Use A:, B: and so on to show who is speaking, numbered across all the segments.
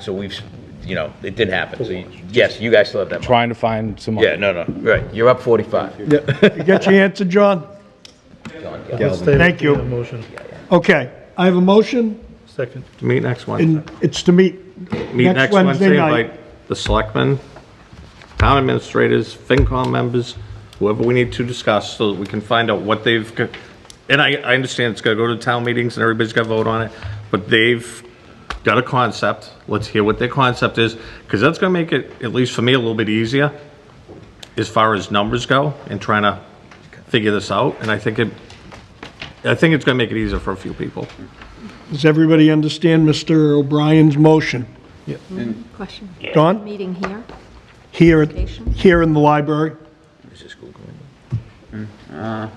A: So we've, you know, it did happen. So you- yes, you guys still have that money.
B: trying to find some
A: Yeah, no, no, right. You're up 45.
C: Yeah, you got your answer, John? Thank you.
D: Motion,
C: Okay, I have a motion,
D: second.
E: To meet next Wednesday.
C: and it's to meet
E: Meet
C: next Wednesday night.
E: invite The selectmen, town administrators, FinCom members, whoever we need to discuss so that we can find out what they've, got- and I, I understand it's gonna go to town meetings and everybody's gotta vote on it, but they've got a concept. Let's hear what their concept is, because that's gonna make it, at least for me, a little bit easier as far as numbers go and trying to figure this out. And I think it, I think it's gonna make it easier for a few people.
C: Does everybody understand Mr. O'Brien's motion?
F: Question.
C: Don,
F: Meeting here?
C: here, here in the library?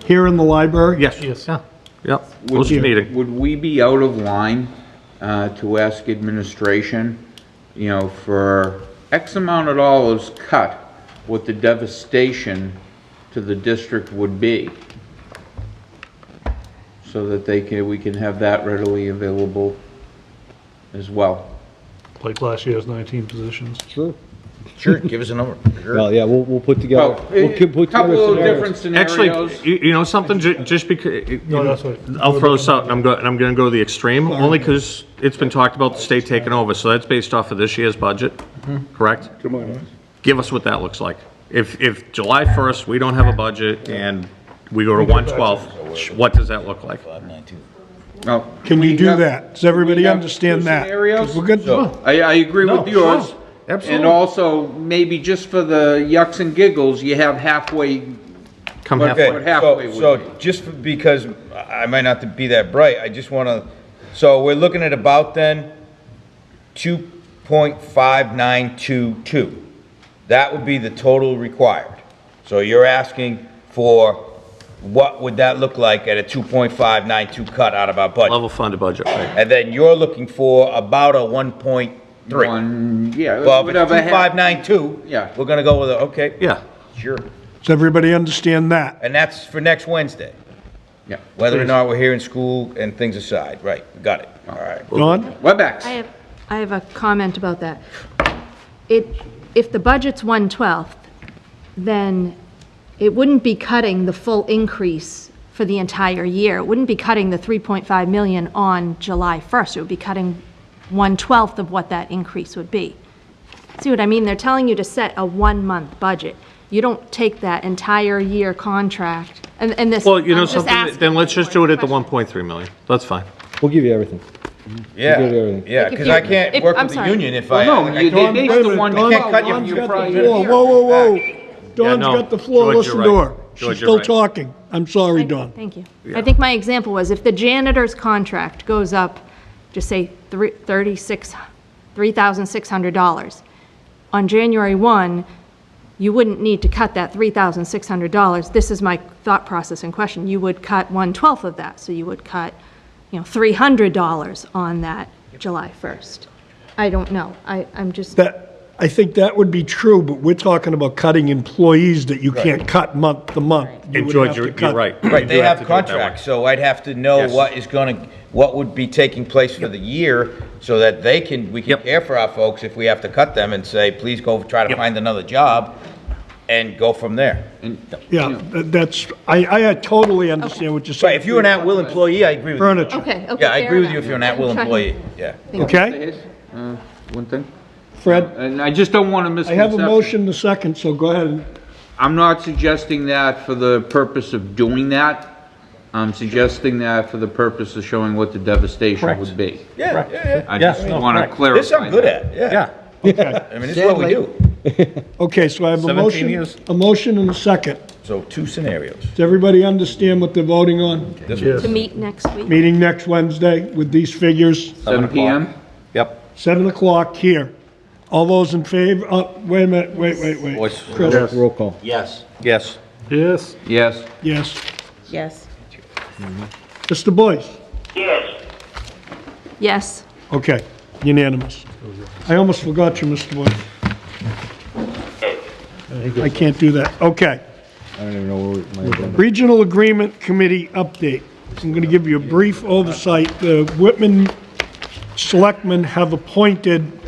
C: Here in the library?
E: Yes.
D: Yes.
E: Yeah, yeah, close to meeting.
G: Would we be out of line uh, to ask administration, you know, for X amount of dollars cut, what the devastation to the district would be? So that they can, we can have that readily available as well.
D: Like last year's 19 positions.
B: Sure.
A: Sure, give us a number. Sure.
B: Well, yeah, we'll, we'll put together.
G: Well,
B: we'll keep-
G: a
B: put together
G: couple of
B: scenarios.
G: different
E: Actually,
G: scenarios.
E: you, you know something, ju- just because,
D: No, that's right.
E: I'll throw this out, and I'm go, and I'm gonna go to the extreme, only because it's been talked about the state taking over, so that's based off of this year's budget, correct? Give us what that looks like. If, if July first, we don't have a budget, and we go to one twelve, what does that look like?
G: Oh. No,
C: Can we do
G: have-
C: that? Does everybody
G: we have
C: understand
G: two
C: that? 'Cause
G: scenarios?
C: We're good,
G: So, I, I agree
E: No,
G: with yours.
E: sure,
G: And
E: absolutely.
G: also, maybe just for the yucks and giggles, you have halfway,
E: Come
G: Okay.
E: halfway.
G: What halfway
A: Okay,
G: would
A: so,
G: be.
A: so just for- because I I might not be that bright, I just want to, so we're looking at about then 2.5922. That would be the total required. So you're asking for, what would that look like at a 2.592 cut out of our budget?
E: Level funded budget, right?
A: And then you're looking for about a 1.3.
G: one, yeah,
A: Well, if it's
G: whatever. hap-
A: 2592.
G: Yeah.
A: We're going to go with, a okay.
E: Yeah,
A: Sure.
C: does everybody understand that?
A: And that's for next Wednesday.
G: Yeah.
A: Whether or not we're here in school and things aside, right, got it, all right.
C: Don?
F: I
G: WebEx,
F: have, I have a comment about that. It, if the budget's one-twelfth, then it wouldn't be cutting the full increase for the entire year. It wouldn't be cutting the 3.5 million on July 1st. It would be cutting one-twelfth of what that increase would be. See what I mean? They're telling you to set a one-month budget. You don't take that entire year contract, and, and this.
E: well, you know
F: I'm just
E: something,
F: asking
E: then let's just
F: for
E: do it at the
F: question.
E: one point three million, that's fine.
B: We'll give you everything.
A: Yeah,
B: give it everything.
A: yeah,
F: Like, if
A: because I
F: you-
A: can't
F: if-
A: work
F: I'm
A: with the
F: sorry.
A: union if I. uh,
G: well,
A: I
G: no, you-
A: can't-
G: they based the one.
A: I can't cut you
C: Don's
A: from your
C: got the
A: prior
C: floor.
A: year.
C: Whoa, whoa, whoa. Don's
E: no,
C: got the floor.
E: George, you're
C: Listen to
E: right.
C: her. She's
E: George, you're
C: still
E: right.
C: talking. I'm sorry, Don.
F: Thank you. I think my example was if the janitor's contract goes up, just say three- 36 $3,600, on January 1, you wouldn't need to cut that $3,600. This is my thought process in question. You would cut one-twelfth of that, so you would cut, you know, $300 on that July 1st. I don't know. I, I'm just,
C: That, I think that would be true, but we're talking about cutting employees that you can't cut month to month. You
E: And
C: would
E: George,
C: have to
E: you're, you're
C: cut-
E: right.
A: Right,
E: You
A: they
E: do
A: have
E: to do it that way.
A: contracts, so I'd have to know
E: Yes.
A: what is gonna, what would be taking place for the year so that they can, we can
E: Yep.
A: care for our folks if we have to cut them and say, please go try to
E: Yep.
A: find another job and go from there.
C: Yeah, that- that's, I, I totally understand what you're
A: Right,
C: saying.
A: if you're an at-will employee, I agree with you.
C: Furniture.
F: okay, okay,
A: Yeah, I
F: fair
A: agree with you
F: enough.
A: if you're an at-will
F: I'm trying-
A: employee, yeah.
C: Okay,
G: Here's, uh, one thing,
C: Fred,
G: and I just don't want to
C: I have a
G: misconception.
C: motion in a second, so go ahead.
G: I'm not suggesting that for the purpose of doing that. I'm suggesting that for the purpose of showing what the devastation would be.
A: Yeah, yeah,
G: I
E: Yes,
G: just
E: no,
G: want
E: correct.
G: to clarify.
A: This I'm good
G: that.
A: at, yeah.
E: Yeah.
A: I mean, this is what we do.
C: Okay, so I have a
E: 17
C: motion,
E: years.
C: a motion and a second.
A: So two scenarios.
C: Does everybody understand what they're voting on?
A: This
D: Yes.
F: To meet next week.
C: Meeting next Wednesday with these figures,
G: Seven PM?
E: Yep.
C: 7 o'clock here. All those in favor, uh, wait a minute, wait, wait, wait.
A: was-
C: Chris,
B: Roll call.
A: Yes.
E: Yes.
D: Yes.
G: Yes.
C: yes.
H: Yes.
C: Mr. Boyce?
F: Yes.
C: Okay, unanimous. I almost forgot you, Mr. Boyd. I can't do that. Okay.
B: I don't even know where my agenda.
C: Regional Agreement Committee update. I'm going to give you a brief oversight. The Whitman Selectmen have appointed